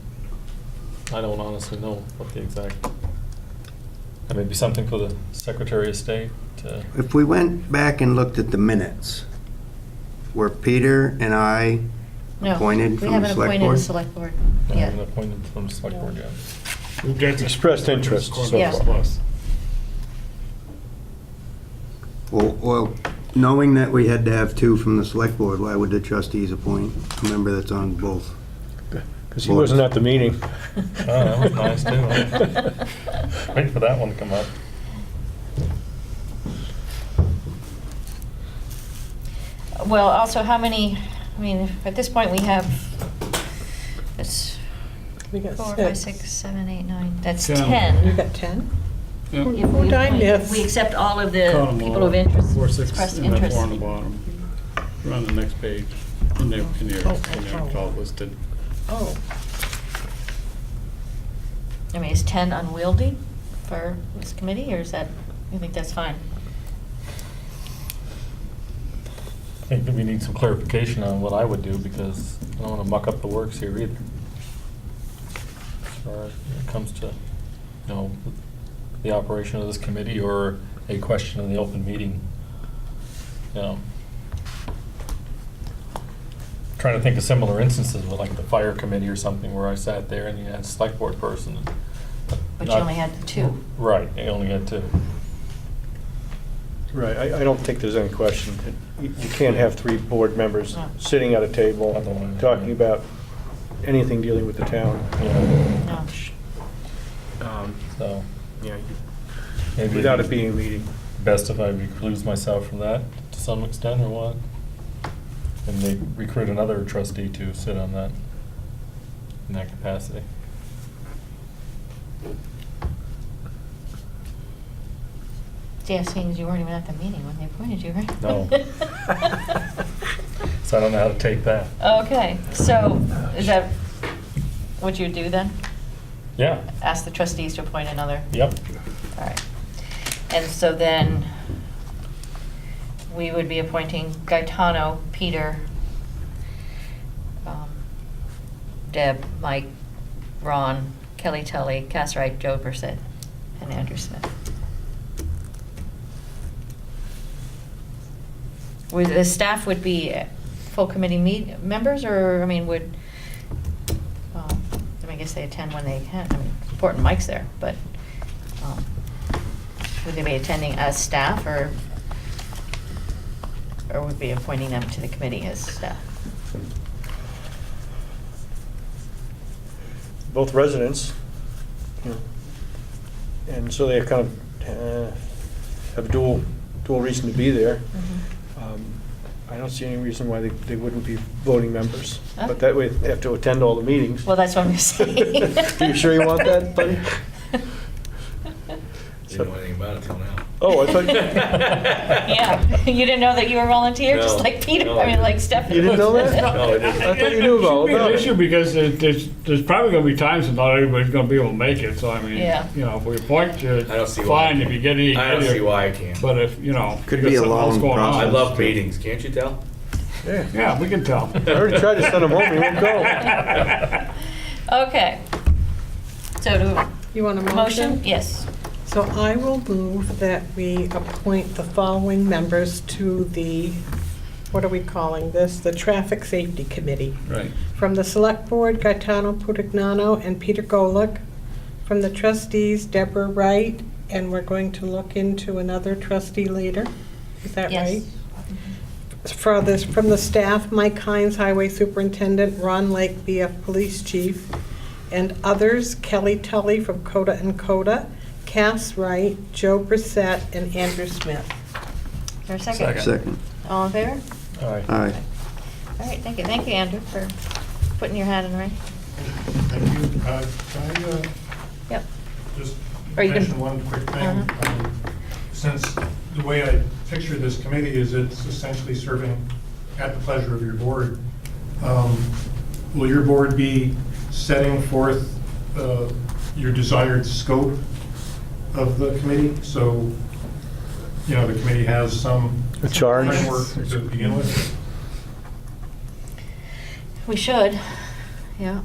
I don't honestly know what the exact, that may be something for the Secretary of State to, If we went back and looked at the minutes, where Peter and I No, appointed we from the haven't select appointed a board? select board. I Yeah. haven't appointed from the select board yet. Expressed interest so Yeah. far. Well, well, knowing that we had to have two from the select board, why would the trustees appoint a member that's on both? Because he wasn't at the meeting. Oh, that was nice too. huh? Wait for that one to come up. Well, also, how many, I mean, at this point, we have, that's We got four, five, six. six, seven, eight, nine, that's Ten. You 10. got 10? Yeah. If we Nine, appoint- yes. We accept all of Count the 'em people all. of interest, Four, six, expressed and then interest. four on the bottom. We're on the next page, in their, in their, in their call listed. Oh, I mean, is 10 unwieldy for this committee, or is that, you think that's fine? I think that we need some clarification on what I would do because I don't want to muck up the works here either. As far as it comes to, you know, the operation of this committee or a question in the open meeting. You know. Trying to think of similar instances with like the fire committee or something where I sat there and you had a select board person. But you only had the two. Right, you only had two. Right, I, I don't think there's any question. that You you can't have three board members No. sitting at a table, Otherwise, talking yeah. about anything dealing with the town. Yeah, No. Um, so. Yeah, you- maybe- without it being a meeting. best if I recluse myself from that to some extent or what? And they recruit another trustee to sit on that, in that capacity. Yeah, seeing as you weren't even at the meeting when they appointed you, right? No. So I don't know how to take that. Okay, so is that what you do then? Yeah, Ask the trustees to appoint another? yep, All right. And so then we would be appointing Gaetano, Peter, um, Deb, Mike, Ron, Kelly Tully, Cass Wright, Joe Brissett, and Andrew Smith. Would, the staff would be full committee meet, members, or, I mean, would, um, I mean, I guess they attend when they can, I mean, it's important Mike's there, but, um, would they be attending as staff, or, or would be appointing them to the committee as staff? both residents. you know, And so they kind of uh, have dual, dual reason to be there. Mm-hmm. Mm-hmm. Um, I don't see any reason why they, they wouldn't be voting members. Okay. But that way, they have to attend all the meetings. Well, that's what I'm saying. You sure you want that, buddy? Didn't know anything about it till now. Oh, I thought, Yeah, you didn't know that you were a volunteer, just No, like Peter, no, I I mean, like didn't. Stephanie. You didn't know that? No, I didn't. I thought you knew about all It should be about an it. issue because it- there's, there's probably gonna be times when not everybody's gonna be able to make it, so I mean, Yeah. you know, if we appoint you, I don't see why. fine, if you get any. I don't see why I can't. But uh, if, you know. Could you got be a something else long going on. I process. love meetings, can't you tell? yeah, Yeah, we can tell. I already tried to send him home, he won't go. Okay. So do, you want a motion? motion? Yes. So I will move that we appoint the following members to the, what are we calling this? The Traffic Safety Committee. Right. From the Select Board, Gaetano Putignano and Peter Golick. From the trustees, Deborah Wright, and we're going to look into another trustee later. Is that Yes. right? For this, from the staff, Mike Hines, Highway Superintendent, Ron Lake, BF Police Chief, and others, Kelly Tully from Coda and Coda, Cass Wright, Joe Brissette, and Andrew Smith. Is there a second? Second. All in favor? all right. Aye. All right, thank you, thank you, Andrew, for putting your hat in the ring. Thank you. Uh, Can I uh, Yep. just Or you can- mention one quick thing? Uh-huh. Um, Since the way I picture this committee is it's essentially serving at the pleasure of your board, um, will your board be setting forth uh, your desired scope of the committee? So, you know, the committee has some A charge? framework to begin with? We should, yeah.